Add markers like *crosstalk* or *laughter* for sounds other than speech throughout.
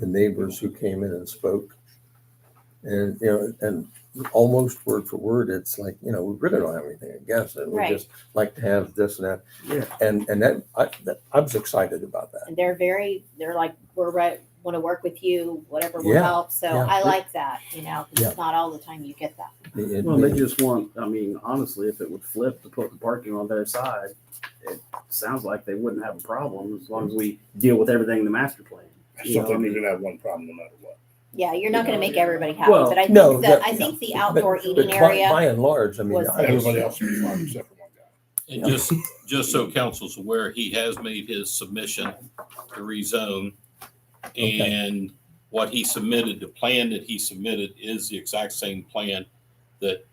the neighbors who came in and spoke. And, you know, and almost word for word, it's like, you know, we really don't have anything against it. We Right. just like to have this and that. Yeah. And, and that, I, that, I was excited about that. And they're very, they're like, we're right, want to work with you, whatever will Yeah, help. So yeah. I like that, you know, 'cause Yeah. it's not all the time you get that. It- it- Well, they just want, I mean, honestly, if it would flip to put the parking on their side, it sounds like they wouldn't have a problem as long as we deal with everything in the master plan. I Yeah, still I think mean- you're gonna have one problem no matter what. Yeah, you're not going to make everybody happy, Well, but I think no, the, that- I think the but- outdoor but eating by- area. By and large, I mean, was I- the Everybody else will be fine except for one guy. And just, just so council's aware, he has made his submission to rezone. Okay. And what he submitted, the plan that he submitted is the exact same plan that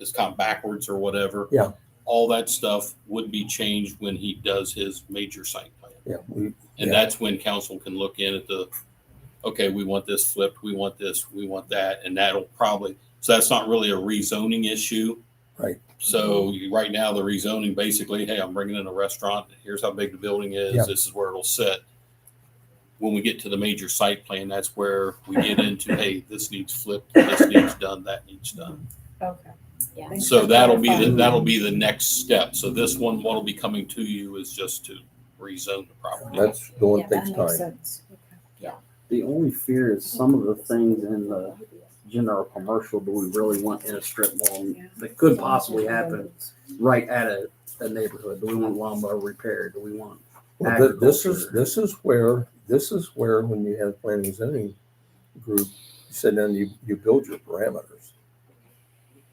has come backwards or whatever. Yeah. All that stuff would be changed when he does his major site plan. yeah, we, And Yeah. that's when council can look in at the, okay, we want this flipped, we want this, we want that, and that'll probably, so that's not really a rezoning issue. Right. So you- right now, the rezoning, basically, hey, I'm bringing in a restaurant, here's how big the building Yeah. is, this is where it'll sit. When we get to the major site plan, that's where we get into, hey, this needs flipped, this needs done, that needs done. Okay. Yeah. Thanks So for that'll be, the clarifying. that'll be the next step. So this one, what'll be coming to you is just to rezone the property. that's the one Yeah, that That takes makes time. sense. Okay. The only fear is some of the things in the general commercial, do we really want in a strip mall that could possibly happen right at a, a neighborhood? Do we want lawnmower repair? Do we want? Well, th- This is, agriculture. this is where, this is where, when you have planning and zoning group, you sit down, you, you build your parameters.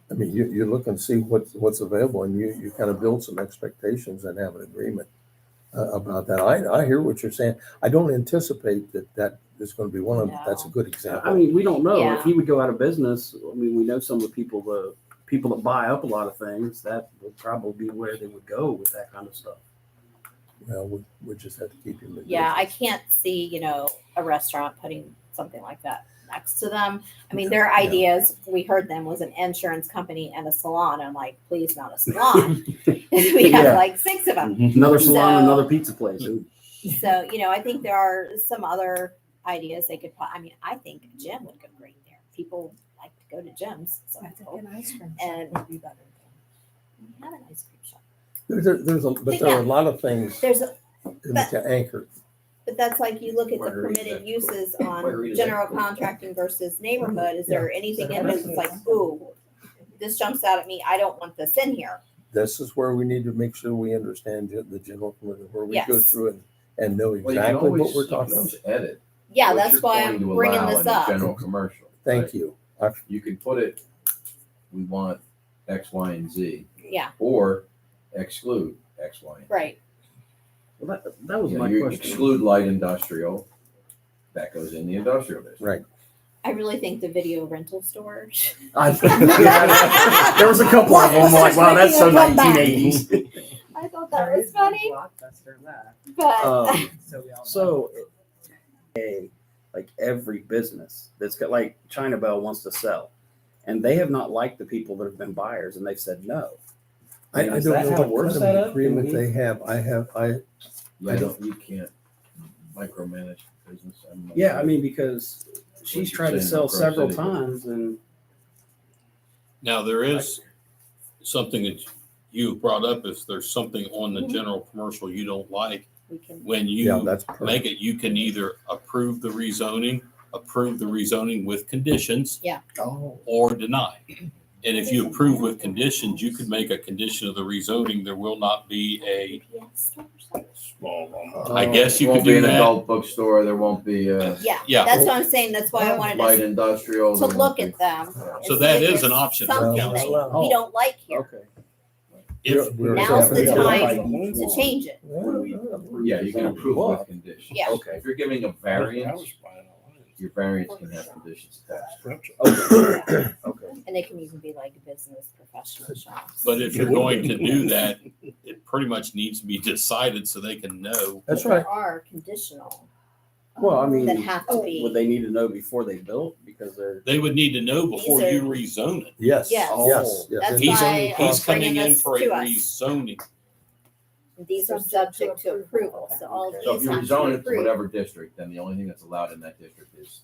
I mean, you, you look and see what's, what's available and you, you kind of build some expectations and have an agreement uh, about that. I, I hear what you're saying. I don't anticipate that that is going to be one of them. but That's a good I example. mean, we don't know. Yeah. If he would go out of business, I mean, we know some of the people, the people that buy up a lot of things, that would probably be where they would go with that kind of stuff. Well, we, we just have to keep him. in Yeah, I business. can't see, you know, a restaurant putting something like that next to them. I mean, their ideas, we heard them, was an insurance company and a salon. I'm like, please, not *laughs* a salon. *laughs* We Yeah. have like six of them. Another salon, So- another pizza place. So, you know, I think there are some other ideas they could, po- I mean, I think a gym would go great there. People like to go to gyms, so I I think an ice cream And- shop would be better. we have an ice cream shop. There's, a- there's, a- but there are a lot of things There's a to anchor. But that's like you look at the Margarita's permitted excellent. uses on Margarita's general excellent. contracting versus neighborhood, is there anything in Yeah. this that's like, ooh, this jumps out at me, I don't want this in here, this is where we need to make sure we understand the- the general, community, where we go Yes. through and, and know Well, you can exactly what always- we're you can talking about. always Edit. yeah, what that's you're why going I'm to bringing allow this in the up. General commercial. Thank right? you. I- You can put it, we want X, Y, and Z, Yeah, or exclude X, Y. and Z. right, Well, that, that was You know, my you question. exclude light industrial, that goes in the industrial district. Right. I really think the video rental storage. *laughs* I- *laughs* there was a couple of them. I'm like, wow, that's so *laughs* 1980s. I Oh, thought There is no Blockbuster left, Uh, but. Um, so we all. so, a like every business that's got like China Bell wants to sell, and they have not liked the people that have been buyers, and they've said no. I, I Is don't that know how it what works kind that of up? agreement Can we- they have. I have, I, I Yeah, I don't- don't, you can't micromanage business. I'm not Yeah, I sure. mean because she's you're tried to saying, sell Crow several City. times, and Now, there is something that you brought up, if there's something on the Mhm. general commercial you don't like, We can, when yeah, you that's make perfect. it, you can either approve the rezoning, approve the rezoning with conditions, oh, or deny. And if you approve with conditions, you could make a condition of the rezoning, there will not be a, yeah, storage something. Small Uh, lawnmower. I guess you could Oh, Won't be do an that. adult bookstore, there won't be, uh, Yeah, Yeah. that's what I'm saying, that's why I wanted light us industrial. to there look won't at them. be- and So see that if is there's an option for Something that council. we Oh, don't like here, okay. if, We're- now's the we're- time Oh. to change it. When we Yeah. approve- Yeah, you can approve with conditions. Yeah. Okay. If you're giving a I variance, was buying a your variance can have conditions attached. line. Oh, Yeah. *clears throat* Okay. And they can even be like business professional shops. but if you're going to *laughs* do that, it pretty much needs to be decided so they can know. That's But right. There are conditional. um, Well, I mean, oh, That have to be. would they need to know before they built because they're They would need to know before you These are- rezone it. Yes, Yes. yes, yes. That's He's why only I He's bringing coming in this for a to us. rezoning. these are subject to approval, so all So if these you have to rezone be it to approved. whatever district, then the only thing that's allowed in that district is